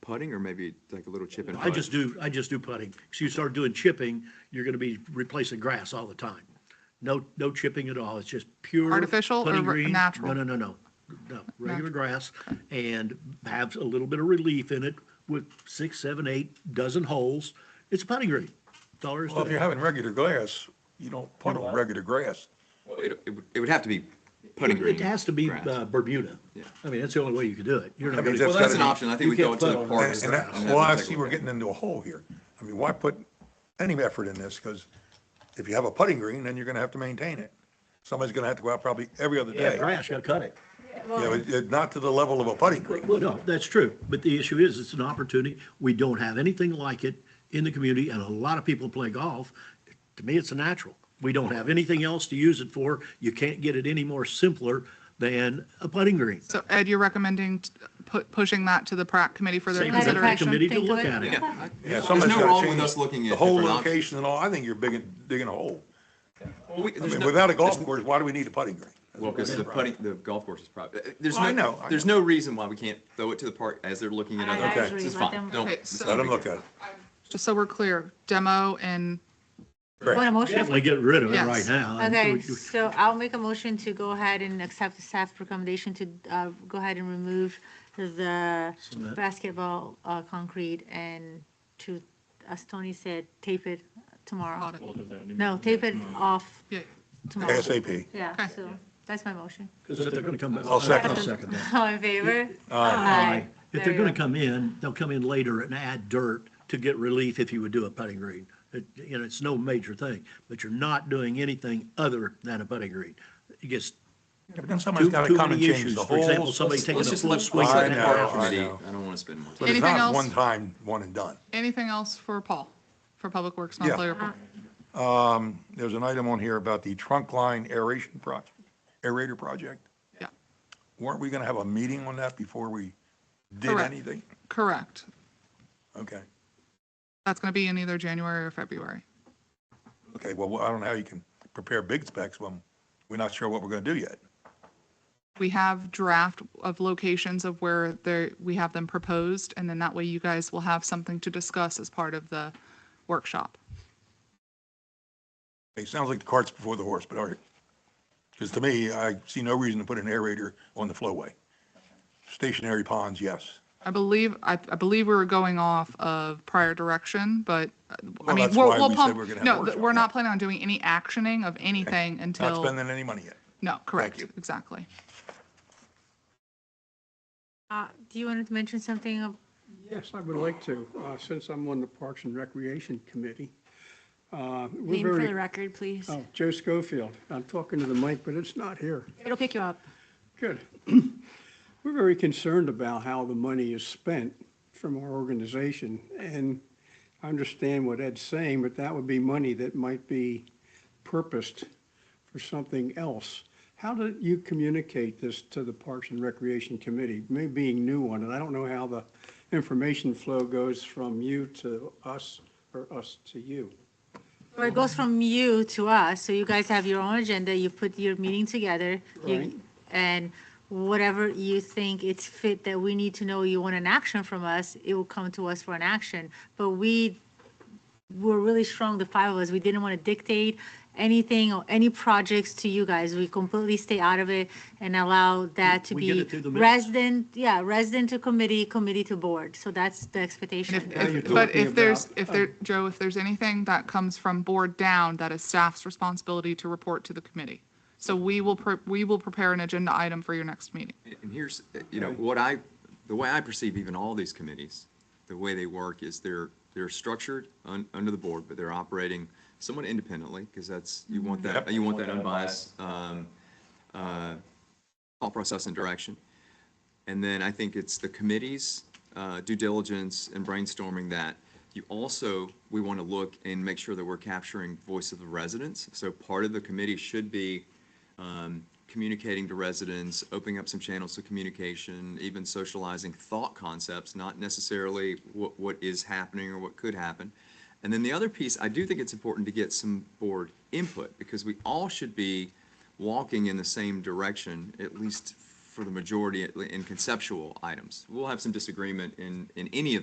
putting or maybe like a little chip and I putt? just do, I just do putting. So you start doing chipping, you're gonna be replacing grass all the time. No, no chipping at all. It's just pure. Artificial or putting r- green. natural? No, no, no, no, no, regular grass and have a little bit of relief in it with six, seven, eight dozen holes. It's a putting green. That's all there is Well, if to you're it. having regular grass, you don't put on regular grass. It, it would- it would have to be putting green. It has to be grass. uh, Bermuda. Yeah. I mean, that's the only way you could do it. You're not I mean, gonna- Well, that's an gotta be- option. I you think we go can't to put the on park. And and that, well, I see we're getting into a hole here. I mean, why put any effort in this? Because if you have a putting green, then you're gonna have to maintain it. Somebody's gonna have to go out probably every other Yeah, day. Yeah, grass, you gotta cut it. but it- not to the level of a putting green. Well, no, that's true, but the issue is, it's an opportunity, we don't have anything like it in the community, and a lot of people play golf. To me, it's a natural, we don't have anything else to use it for, you can't get it any more simpler than a putting green. So Ed, you're recommending t- pu- pushing that to the PrAC committee for their Same as the Consideration. committee consideration? to Think look of it. at it, Yeah. Yeah, There's somebody's no gotta wrong with change us looking at. The whole different options. location and all, I think you're digging, digging a hole. Well, we- I there's mean, no- without a golf course, why do we need a putting green? Well, because the putting, the golf course is probably, uh, there's Well, I no, know, I there's no reason why we can't throw it to the park as they're looking at I other agree. things. It's Let fine. them- Don't. Okay, it's so- not a Let them big look deal. at it. Just so we're clear, demo and Want a motion? definitely get rid of it Yes. right now. and Okay, we- we- so I'll make a motion to go ahead and accept the staff recommendation to uh, go ahead and remove the Cement. basketball uh, concrete and to, as Tony said, tape it tomorrow. audit. No, tape it off Yeah, tomorrow. ASAP. Yeah, Okay. so that's my motion. 'cause if they're gonna come back- I'll second I'll it. second that. All in favor? Aye. If There they're you gonna go. come in, they'll come in later and add dirt to get relief if you would do a putting green. It, you know, it's no major thing, but you're not doing anything other than a putting green. It gets Yeah, But then too, somebody's gotta too come and many change issues. the For example, holes. somebody taking a Let's just full let swing swing I at at the the know, park golf. I committee. know. I don't want to spend more But time. it's Anything not else? one time, one and done. anything else for Paul, for Public Works Yeah. monthly report? There's an item on here about the trunk line aeration project, aerator project. Yeah, Weren't we gonna have a meeting on that before we did Correct. anything? correct. Okay, That's going to be in either January or February. okay, well, I don't know how you can prepare big specs when we're not sure what we're gonna do yet. we have draft of locations of where they we have them proposed, and then that way you guys will have something to discuss as part of the workshop. It sounds like the cart's before the horse, but all right. Because to me, I see no reason to put an aerator on the flowway. Stationary ponds, yes. I believe, I, I believe we were going off of prior direction, but, uh, I Well, mean, that's we'll, why we'll we said pump, we're gonna have a no, th- workshop, we're yeah. not planning on doing any actioning of anything Not until, spending any money yet. no, correct, you. exactly. Uh, Do you want to mention something of Yes, I would like to, uh, since I'm on the Parks and Recreation Committee. Uh, We're Name for the very, record, please. oh, Joe Schofield, I'm talking to the mic, but it's not here. It'll pick you up. Good. We're very concerned about how the money is spent from our organization, and I understand what Ed's saying, but that would be money that might be purposed for something else. How did you communicate this to the Parks and Recreation Committee, me being new on it? I don't know how the information flow goes from you to us or us to you. Or it goes from you to us, so you guys have your own agenda, you put your meeting together, you- Right. and whatever you think it's fit that we need to know you want an action from us, it will come to us for an action. But we were really strong, the five of us, we didn't want to dictate anything or any projects to you guys. We completely stay out of it and allow that to We get be it through the minutes. resident, yeah, resident to committee, committee to board. So that's the expectation. And if- you're if, but talking if there's, about- uh, if there, Joe, if there's anything that comes from board down, that is staff's responsibility to report to the committee. So we will, pre- we will prepare an agenda item for your next meeting. And here's, uh, you know, what I, the way I perceive even all these committees, the way they work is they're, they're structured un, under the board, but they're operating somewhat independently, because that's, you want that, you want that unbiased, um, uh, thought process and direction. And then I think it's the committee's uh, due diligence and brainstorming that. You also, we want to look and make sure that we're capturing voice of the residents. So part of the committee should be um, communicating to residents, opening up some channels to communication, even socializing thought concepts, not necessarily what, what is happening or what could happen. And then the other piece, I do think it's important to get some board input because we all should be walking in the same direction, at least for the majority in conceptual items. We'll have some disagreement in, in any of the